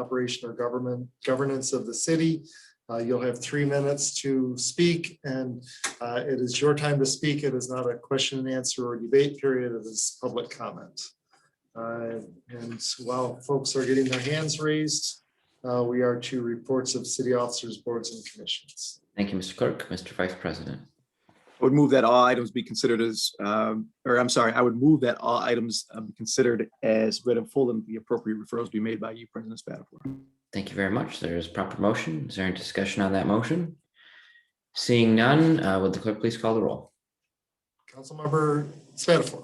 operation or government, governance of the city. Uh, You'll have three minutes to speak and uh, it is your time to speak. It is not a question and answer or debate period. It is public comment. Uh, And while folks are getting their hands raised, uh, we are to reports of city officers, boards and commissions. Thank you, Mr. Clerk. Mr. Vice President. I would move that all items be considered as, um, or I'm sorry, I would move that all items um, be considered as read in full and the appropriate referrals be made by you, President Spatafor. Thank you very much. There is proper motion. Is there any discussion on that motion? Seeing none, uh, would the clerk please call the roll? Councilmember Spatafor,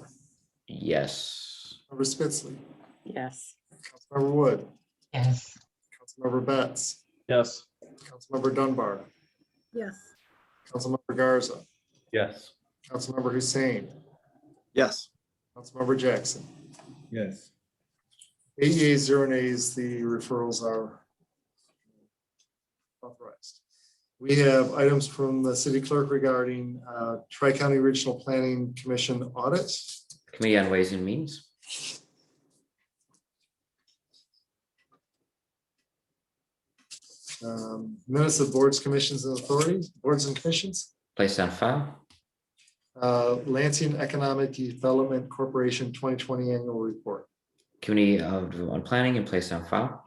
Yes. Member Spitzley, Yes. Councilmember Wood, Yes. Councilmember Betts, Yes. Councilmember Dunbar, Yes. Councilmember Garza, Yes. Councilmember Hussein, Yes, Councilmember Jackson. Yes. Eight yeas, zero nays, the referrals are authorized. We have items from the city clerk regarding uh, Tri-County Regional Planning Commission audit. Committee on Ways and Means. um, Minutes of boards, commissions, and authorities, boards and commissions. Placed on file. Uh, Lansing Economic Development Corporation 2020 Annual Report. Committee of on Planning and placed on file.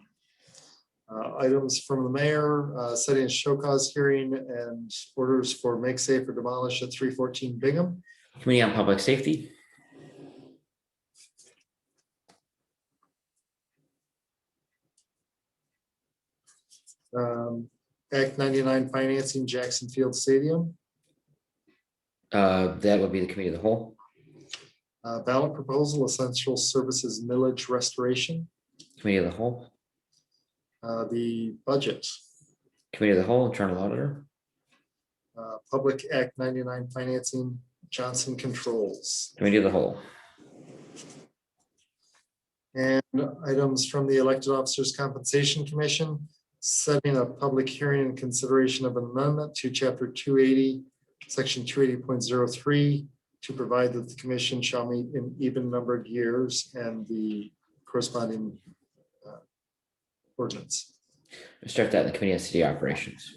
Uh, Items from the mayor, uh, setting a show cause hearing and orders for make safe or demolish at 314 Bingham. Committee on Public Safety. Um, Act 99 financing Jackson Field Stadium. Uh, that would be the Committee of the Whole. Uh, Ballot proposal essential services millage restoration, Committee of the Whole. Uh, the budget. Committee of the Whole, Internal Auditor. Uh, Public Act 99 financing Johnson Controls. Committee of the Whole. And items from the Elected Officers Compensation Commission, setting a public hearing in consideration of an amendment to chapter two eighty, section two eighty point zero three, to provide that the commission shall meet in even numbered years and the corresponding uh, ordinance. We'll Start that in the Committee on City Operations.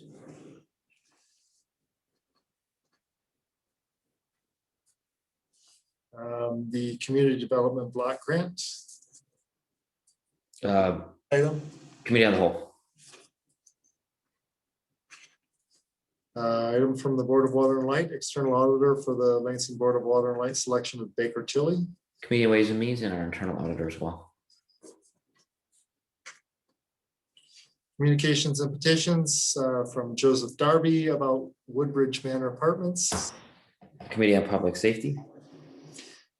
Um, The Community Development Block Grant Uh, item. Committee on the Whole. Uh, Item from the Board of Water and Light, External Auditor for the Lansing Board of Water and Light, selection of Baker Tilly. Committee on Ways and Means and our Internal Auditor as well. Communications and petitions uh, from Joseph Darby about Woodbridge Manor Apartments, Committee on Public Safety.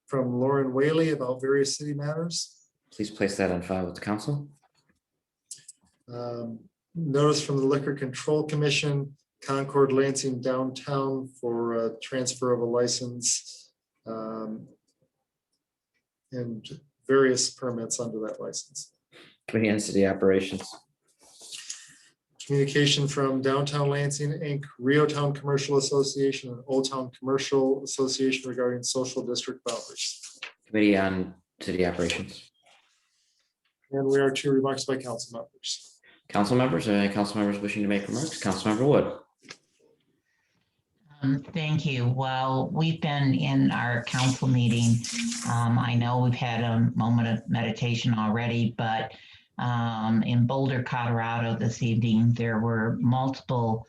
from Lauren Whaley about various city matters. Please place that on file with the council. Um, Notice from the Liquor Control Commission, Concord Lansing Downtown for uh, transfer of a license. um, And various permits under that license. Committee on City Operations. Communication from Downtown Lansing Inc., Rio Town Commercial Association, and Old Town Commercial Association regarding social district boundaries. Committee on City Operations. And we are two remarks by council members. Council members, are there any council members wishing to make remarks? Councilmember Wood. Um, Thank you. Well, we've been in our council meeting. Um, I know we've had a moment of meditation already, but um, in Boulder, Colorado this evening, there were multiple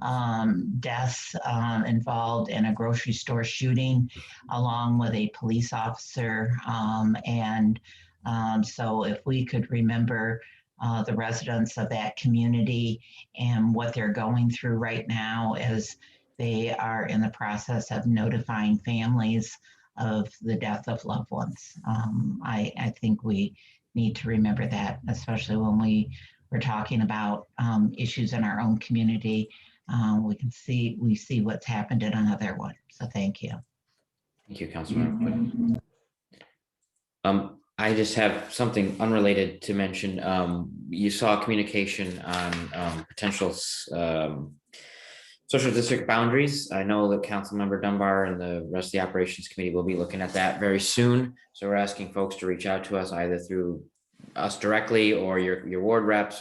um, deaths um, involved in a grocery store shooting along with a police officer. Um, and um, so if we could remember uh, the residents of that community and what they're going through right now as they are in the process of notifying families of the death of loved ones. Um, I, I think we need to remember that, especially when we were talking about um, issues in our own community. Uh, we can see we see what's happened in another one. So thank you. Thank you, Councilmember Wood. Um, I just have something unrelated to mention. Um, you saw communication on um potential s- um social district boundaries. I know that Councilmember Dunbar and the rest of the Operations Committee will be looking at that very soon. So we're asking folks to reach out to us either through us directly or your, your ward reps